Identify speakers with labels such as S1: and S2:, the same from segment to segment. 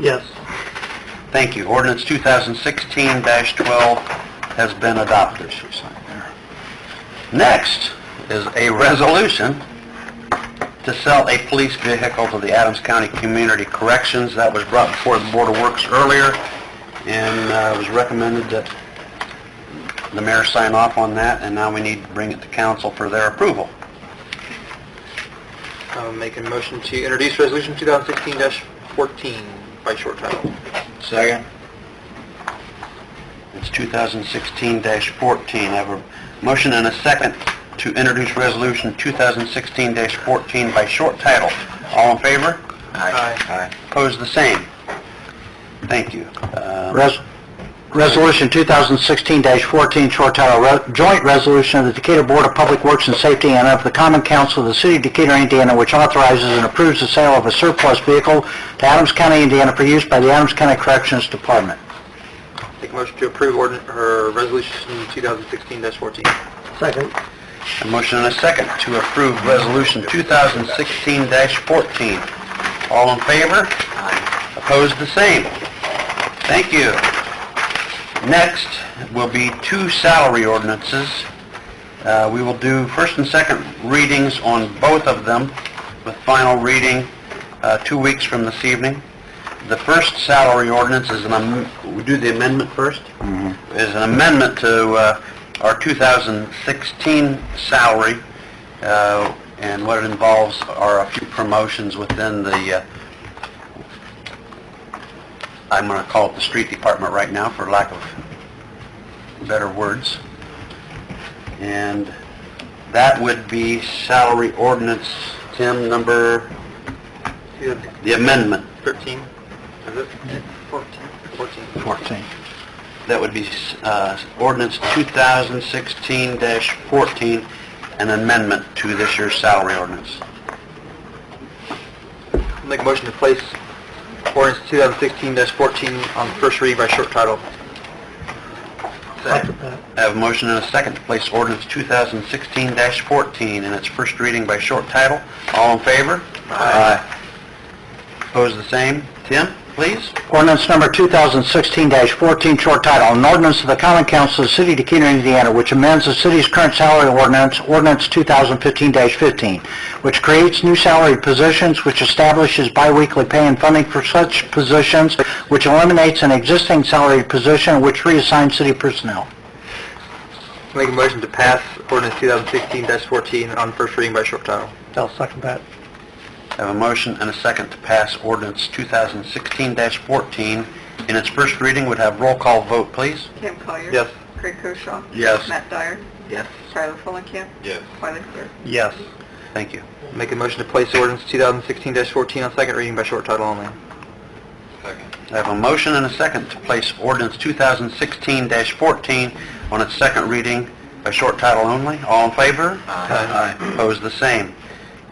S1: Yes.
S2: Thank you. Ordinance 2016-12 has been adopted. She signed there. Next is a resolution to sell a police vehicle to the Adams County Community Corrections. That was brought before the Board of Works earlier, and uh, it was recommended that the mayor sign off on that, and now we need to bring it to council for their approval.
S1: I'm making a motion to introduce resolution 2016-14 by short title.
S2: Second. It's 2016-14. I have a motion and a second to introduce Resolution 2016-14 by short title. All in favor?
S1: Aye.
S2: Opposed, the same. Thank you. Uh, Resolution 2016-14, short title, joint resolution of the Decatur Board of Public Works and Safety and of the Common Council of the City of Decatur, Indiana, which authorizes and approves the sale of a surplus vehicle to Adams County, Indiana, for use by the Adams County Corrections Department.
S1: Make a motion to approve ordinance, or resolution 2016-14.
S2: Second. A motion and a second to approve Resolution 2016-14. All in favor? Aye. Opposed, the same. Thank you. Next will be two salary ordinances. Uh, We will do first and second readings on both of them, with final reading uh, two weeks from this evening. The first salary ordinance is an, am- we do the amendment 1st Is an amendment to uh, our 2016 salary, uh, and what it involves are a few promotions within the uh, I'm going to call it the street department right now, for lack of better words. And that would be salary ordinance, Tim, number,
S1: 2016-13,
S2: the amendment.
S1: is it? 14. 14.
S2: 14. That would be uh, ordinance 2016-14, an amendment to this year's salary ordinance.
S1: I'll Make a motion to place ordinance 2016-14 on first read by short title. Second.
S2: I have a motion and a second to place ordinance 2016-14 in its first reading by short title. All in favor? Aye. Opposed, the same. Tim, please.
S3: Ordinance number 2016-14, short title, an ordinance of the common council of the city of Decatur, Indiana, which amends the city's current salary ordinance, ordinance 2015-15, which creates new salary positions, which establishes biweekly pay and funding for such positions, which eliminates an existing salary position, which reassigns city personnel.
S1: I'll Make a motion to pass ordinance 2016-14 on first reading by short title.
S3: I'll second that.
S2: I have a motion and a second to pass ordinance 2016-14 in its first reading. Would have roll call vote, please.
S4: Kim Collier.
S1: Yes.
S4: Craig Koshaw.
S2: Yes.
S4: Matt Dyer.
S1: Yes.
S4: Tyler Fulenkamp.
S1: Yes.
S4: Wiley Sear.
S2: Yes. Thank you.
S1: Make a motion to place ordinance 2016-14 on second reading by short title only.
S2: I have a motion and a second to place ordinance 2016-14 on its second reading by short title only. All in favor?
S1: Aye.
S2: Aye. Opposed, the same.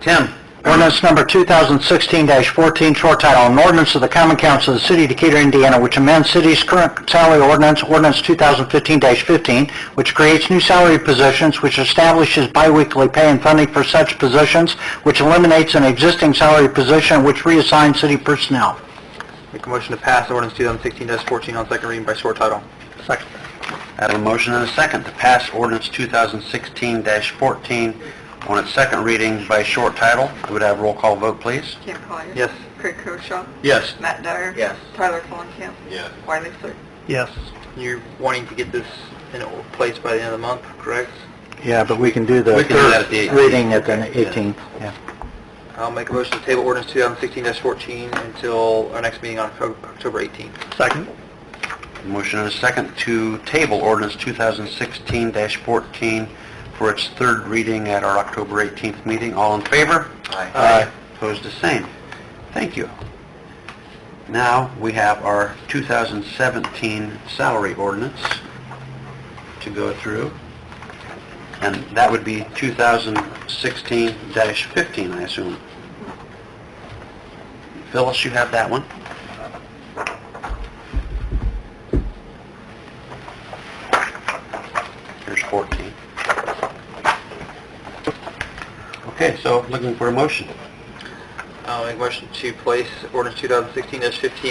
S2: Tim,
S3: Ordinance number 2016-14, short title, an ordinance of the common council of the city of Decatur, Indiana, which amends city's current salary ordinance, ordinance 2015-15, which creates new salary positions, which establishes biweekly pay and funding for such positions, which eliminates an existing salary position, which reassigns city personnel.
S1: Make a motion to pass ordinance 2016-14 on second reading by short title.
S3: Second.
S2: I have a motion and a second to pass ordinance 2016-14 on its second reading by short title. Would have roll call vote, please.
S4: Kim Collier.
S1: Yes.
S4: Craig Koshaw.
S2: Yes.
S4: Matt Dyer.
S1: Yes.
S4: Tyler Fulenkamp. Yes. Wiley Sear.
S3: Yes.
S1: You're wanting to get this in place by the end of the month, correct?
S3: Yeah, but we can do
S2: We can do that at the
S3: the
S2: 18th.
S3: reading at the 18th. Yeah.
S1: I'll make a motion to table ordinance 2016-14 until our next meeting on Oc- October 18th.
S3: Second.
S2: Motion and a second to table ordinance 2016-14 for its third reading at our October 18th meeting. All in favor?
S1: Aye.
S2: Opposed, the same. Thank you. Now, we have our 2017 salary ordinance to go through, and that would be 2016-15, I assume. Phyllis, you have that one? Here's 14. Okay, so looking for a motion.
S1: I'll make a motion to place ordinance 2016-15